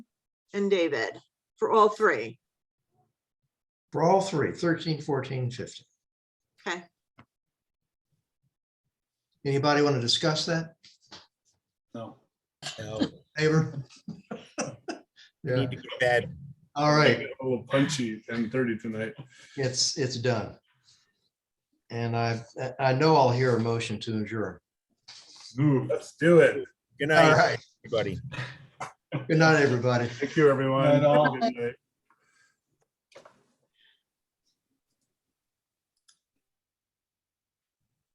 and David for all three. for all three, 13, 14, 15. Okay. Anybody want to discuss that? No. Favor? Yeah, Need to get bed. all right, A little punchy, ten thirty tonight. it's, it's done. And I, I know I'll hear a motion to adjourn. Ooh, let's do it. Good All night, right, everybody. good night, everybody. Thank you, everyone. Have a good night.